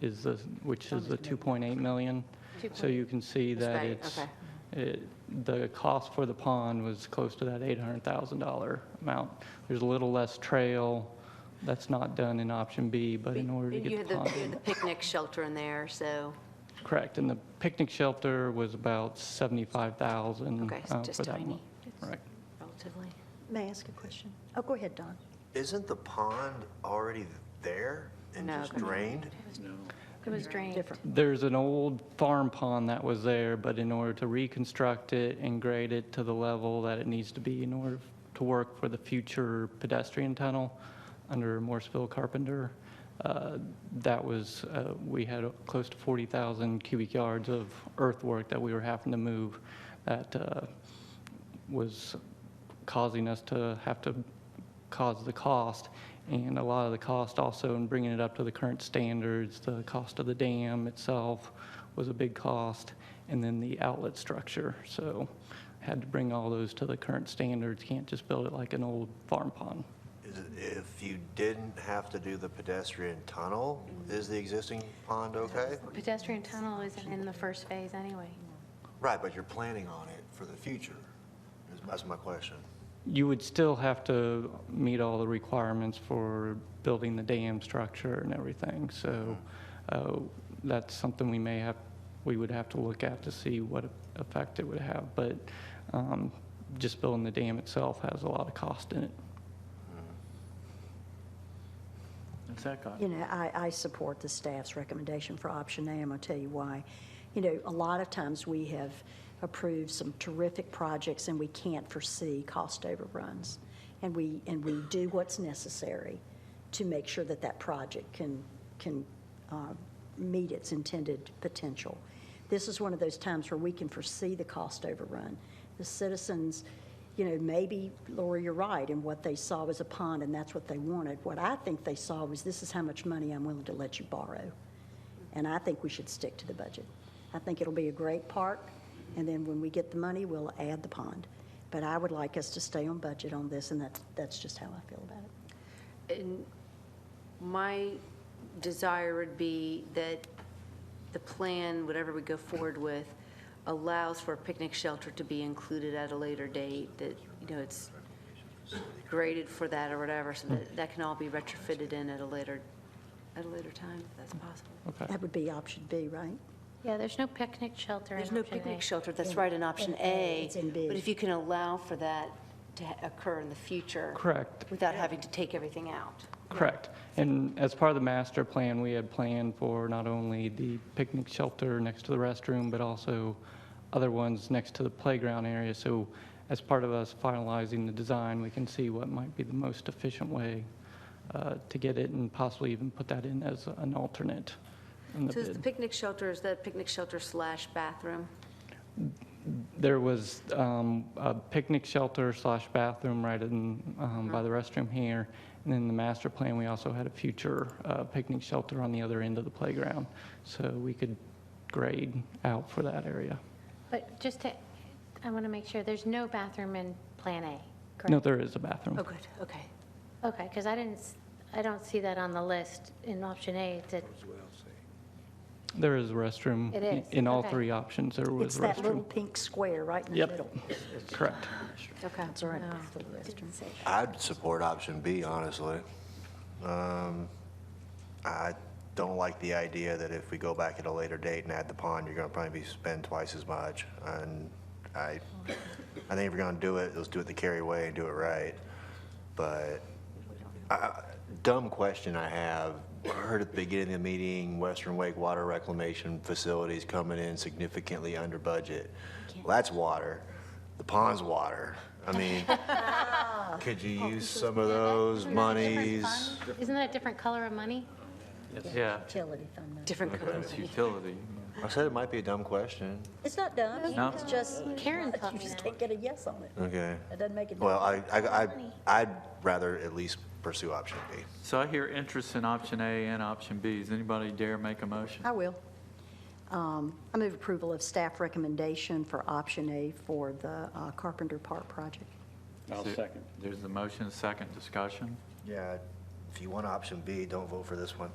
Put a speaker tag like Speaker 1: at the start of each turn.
Speaker 1: is the, which is the 2.8 million. So you can see
Speaker 2: That's
Speaker 1: that
Speaker 2: right,
Speaker 1: it's, it- the cost for the pond was close to that $800,000 amount. There's a little less trail, that's not done in option B, but in order to
Speaker 2: You
Speaker 1: get the
Speaker 2: had the
Speaker 1: pond
Speaker 2: you had
Speaker 1: in.
Speaker 2: the picnic shelter in there, so,
Speaker 1: Correct, and the picnic shelter was about 75,000.
Speaker 2: Okay, so
Speaker 1: uh,
Speaker 2: just
Speaker 1: for that
Speaker 2: tiny.
Speaker 1: month. Right.
Speaker 2: relatively.
Speaker 3: May I ask a question? Oh, go ahead, Don.
Speaker 4: Isn't the pond already there and
Speaker 2: No,
Speaker 4: just
Speaker 2: okay.
Speaker 4: drained?
Speaker 5: It was drained.
Speaker 3: Different.
Speaker 1: There's an old farm pond that was there, but in order to reconstruct it and grade it to the level that it needs to be in order to work for the future pedestrian tunnel under Morrisville Carpenter, uh, that was, uh, we had close to 40,000 cubic yards of earthwork that we were having to move that uh, was causing us to have to cause the cost. And a lot of the cost also in bringing it up to the current standards, the cost of the dam itself was a big cost, and then the outlet structure. So had to bring all those to the current standards, can't just build it like an old farm pond.
Speaker 4: Is it- If you didn't have to do the pedestrian tunnel, is the existing pond okay?
Speaker 5: Pedestrian tunnel isn't in the first phase anyway.
Speaker 4: Right, but you're planning on it for the future, is- that's my question.
Speaker 1: You would still have to meet all the requirements for building the dam structure and everything. So uh, that's something we may have, we would have to look at to see what effect it would have. But um, just building the dam itself has a lot of cost in it.
Speaker 6: What's that got?
Speaker 3: You know, I, I support the staff's recommendation for option A, and I'll tell you why. You know, a lot of times we have approved some terrific projects and we can't foresee cost overruns. And we, and we do what's necessary to make sure that that project can, can uh, meet its intended potential. This is one of those times where we can foresee the cost overrun. The citizens, you know, maybe, Laura, you're right, and what they saw was a pond, and that's what they wanted. What I think they saw was, this is how much money I'm willing to let you borrow. And I think we should stick to the budget. I think it'll be a great park, and then when we get the money, we'll add the pond. But I would like us to stay on budget on this, and that's, that's just how I feel about it.
Speaker 2: And my desire would be that the plan, whatever we go forward with, allows for a picnic shelter to be included at a later date, that, you know, it's graded for that or whatever, so that, that can all be retrofitted in at a later, at a later time, if that's possible.
Speaker 1: Okay.
Speaker 3: That would be option B, right?
Speaker 5: Yeah, there's no picnic shelter in
Speaker 2: There's no
Speaker 5: option A.
Speaker 2: picnic shelter, that's right, in option
Speaker 3: in A,
Speaker 2: A.
Speaker 3: it's in B.
Speaker 2: But if you can allow for that to ha- occur in the future.
Speaker 1: Correct.
Speaker 2: Without having to take everything out.
Speaker 1: Correct. And as part of the master plan, we had planned for not only the picnic shelter next to the restroom, but also other ones next to the playground area. So as part of us finalizing the design, we can see what might be the most efficient way uh, to get it and possibly even put that in as an alternate in the
Speaker 2: So is the
Speaker 1: bid.
Speaker 2: picnic shelter, is that picnic shelter slash bathroom?
Speaker 1: There was um, a picnic shelter slash bathroom right in, um, by the restroom here. And then the master plan, we also had a future uh, picnic shelter on the other end of the playground. So we could grade out for that area.
Speaker 5: But just to, I want to make sure, there's no bathroom in Plan A,
Speaker 1: No,
Speaker 5: correct?
Speaker 1: there is a bathroom.
Speaker 2: Oh, good, okay.
Speaker 5: Okay, because I didn't, s- I don't see that on the list in option A. It's a-
Speaker 1: There is a restroom.
Speaker 5: It is,
Speaker 1: In all
Speaker 5: okay.
Speaker 1: three options, there was
Speaker 3: It's
Speaker 1: a restroom.
Speaker 3: that little pink square right in the
Speaker 1: Yep.
Speaker 3: middle.
Speaker 1: Correct.
Speaker 2: Okay.
Speaker 3: That's all right. that's the restroom.
Speaker 4: I'd support option B, honestly. Um, I don't like the idea that if we go back at a later date and add the pond, you're gonna probably be spend twice as much. And I, I think if you're gonna do it, let's do it the Cary way and do it right. But I- dumb question I have, I heard at the beginning of the meeting, Western Wake Water Reclamation Facilities coming in significantly under budget. Well, that's water. The pond's water. I mean, could you use some of those
Speaker 5: Isn't that a different
Speaker 4: monies?
Speaker 5: fund? Isn't that a different color of money?
Speaker 6: Yeah,
Speaker 3: Utility fund. money.
Speaker 2: Different color.
Speaker 6: it's utility.
Speaker 4: I said it might be a dumb question.
Speaker 3: It's not dumb.
Speaker 6: No.
Speaker 3: It's just,
Speaker 5: Karen taught
Speaker 3: you
Speaker 5: me
Speaker 3: just
Speaker 5: that.
Speaker 3: can't get a yes on it.
Speaker 4: Okay.
Speaker 3: It doesn't make it.
Speaker 4: Well, I, I, I- I'd rather at least pursue option B.
Speaker 6: So I hear interest in option A and option B. Does anybody dare make a motion?
Speaker 3: I will. Um, I move approval of staff recommendation for option A for the uh, Carpenter Park project.
Speaker 7: I'll second.
Speaker 6: There's the motion, second discussion.
Speaker 4: Yeah. If you want option B, don't vote for this one.